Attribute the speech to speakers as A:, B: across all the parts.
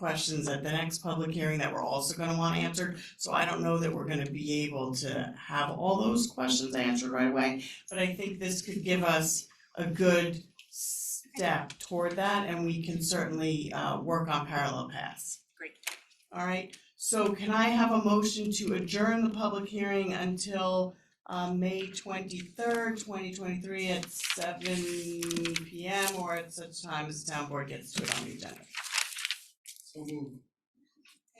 A: questions at the next public hearing that we're also gonna want answered. So I don't know that we're gonna be able to have all those questions answered right away, but I think this could give us a good step toward that, and we can certainly uh work on parallel paths.
B: Great.
A: All right, so can I have a motion to adjourn the public hearing until uh May twenty-third, twenty twenty-three at seven P M or at such time as the town board gets to it on the agenda?
C: So moved.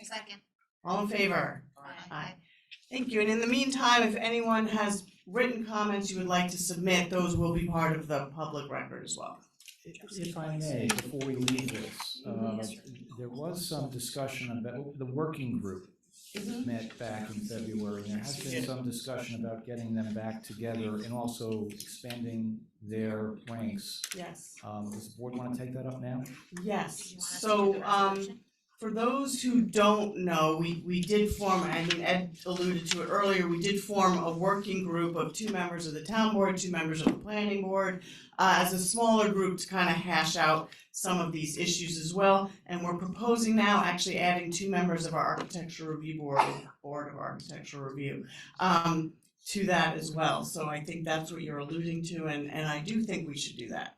B: Second.
A: All in favor?
B: Aye.
A: Aye. Thank you, and in the meantime, if anyone has written comments you would like to submit, those will be part of the public record as well.
D: If I may, before we leave this, uh, there was some discussion about, the working group
A: Mhm.
D: met back in February, and there has been some discussion about getting them back together and also expanding their ranks.
A: Yes,
D: Um, Does the board want to take that up now?
A: yes, so um For those who don't know, we, we did form, I mean, Ed alluded to it earlier, we did form a working group of two members of the town board, two members of the planning board, uh, as a smaller group to kind of hash out some of these issues as well. And we're proposing now actually adding two members of our architecture review board, Board of Architectural Review, um, to that as well. So I think that's what you're alluding to, and, and I do think we should do that.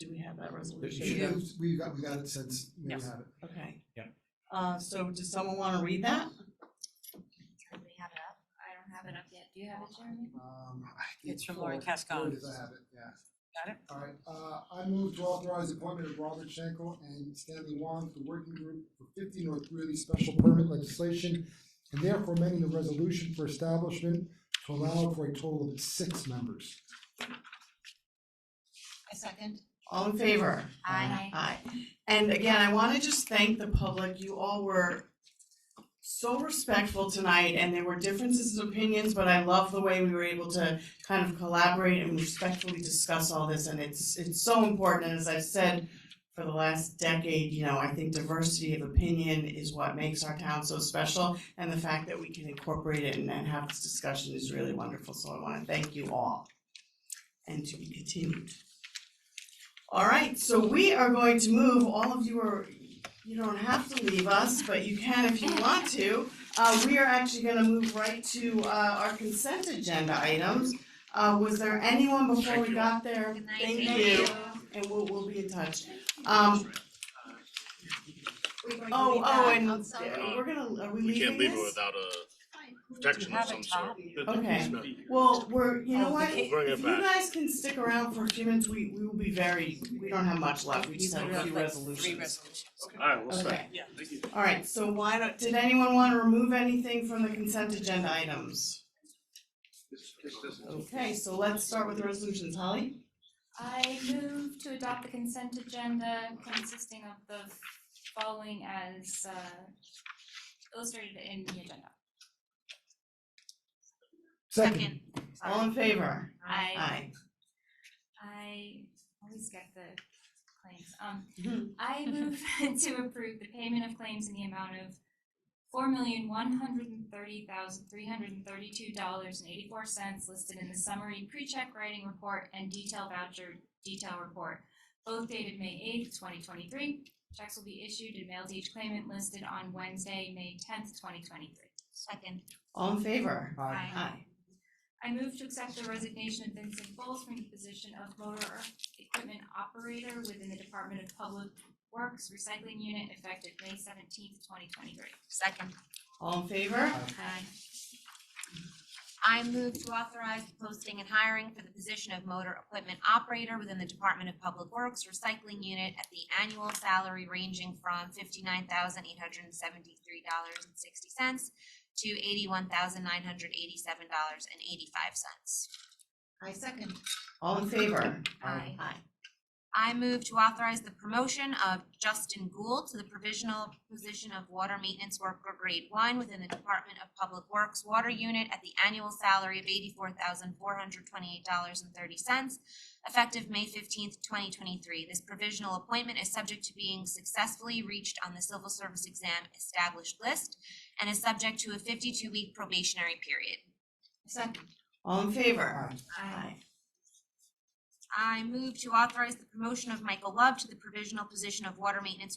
A: Do we have that
D: But
A: resolution?
D: you should have-
C: We got, we got it since, we have
B: Yes.
C: it.
A: Okay.
D: Yeah.
A: Uh, so does someone wanna read that?
E: Do we have it up? I don't have it up yet. Do you have it, Jeremy?
C: Um, I think
B: It's from Lauren
C: before-
B: Cascon.
C: There it is, I have it, yeah.
B: Got it?
C: All right, uh, I move to authorize the appointment of Robert Schenkel and Stanley Wong to the working group for fifty North Greeley special permit legislation and therefore amending the resolution for establishment to allow for a total of six members.
E: I second.
A: All in favor?
E: Aye.
A: Aye. And again, I wanna just thank the public, you all were so respectful tonight, and there were differences of opinions, but I love the way we were able to kind of collaborate and respectfully discuss all this, and it's, it's so important, and as I've said for the last decade, you know, I think diversity of opinion is what makes our town so special, and the fact that we can incorporate it and, and have this discussion is really wonderful, so I wanna thank you all. And to be continued. All right, so we are going to move, all of you are, you don't have to leave us, but you can if you want to. Uh, we are actually gonna move right to, uh, our consent agenda items. Uh, was there anyone before we got there?
E: Good night.
A: Thank you, and we'll, we'll be in touch. Um,
E: We're going to
A: oh,
E: leave
A: oh,
E: that
A: and
E: outside.
A: we're gonna, are we
F: We
A: leaving
F: can't leave it
A: this?
F: without a protection of
B: have a
F: some sort.
B: top?
A: Okay. Well, we're, you know
B: Oh,
A: what?
B: okay.
F: We'll bring
A: If
F: it
A: you
F: back.
A: guys can stick around for a few minutes, we, we will be very, we don't have much left, we
B: You
A: just have
B: put
A: a
B: up
A: few
B: like
A: resolutions.
B: Three resolutions.
F: All right, we'll stay.
A: Okay. All right, so why don't, did anyone want to remove anything from the consent agenda items? Okay, so let's start with the resolutions, Holly?
G: I move to adopt the consent agenda consisting of the following as uh illustrated in the agenda.
C: Second,
A: All in favor?
G: I
A: Aye.
G: I always get the claims.
A: Mhm.
G: Um I move to approve the payment of claims in the amount of four million one hundred and thirty thousand three hundred and thirty-two dollars and eighty-four cents listed in the summary pre-check writing report and detail voucher detail report, both dated May eighth, twenty twenty-three. Checks will be issued and mailed to each claimant listed on Wednesday, May tenth, twenty twenty-three.
E: Second.
A: All in favor?
C: aye,
A: Aye.
G: I move to accept the resignation of Vincent Bowles from the position of motor equipment operator within the Department of Public Works Recycling Unit effective May seventeenth, twenty twenty-three.
E: Second.
A: All in favor?
G: Aye.
E: I move to authorize the posting and hiring for the position of motor equipment operator within the Department of Public Works Recycling Unit at the annual salary ranging from fifty-nine thousand eight hundred and seventy-three dollars and sixty cents to eighty-one thousand nine hundred eighty-seven dollars and eighty-five cents. I second.
A: All in favor?
E: Aye.
A: Aye.
E: I move to authorize the promotion of Justin Gould to the provisional position of water maintenance worker grade one within the Department of Public Works Water Unit at the annual salary of eighty-four thousand four hundred twenty-eight dollars and thirty cents, effective May fifteenth, twenty twenty-three. This provisional appointment is subject to being successfully reached on the civil service exam established list and is subject to a fifty-two week probationary period.
G: Second.
A: All in favor?
C: aye.
G: Aye.
E: I move to authorize the promotion of Michael Love to the provisional position of water maintenance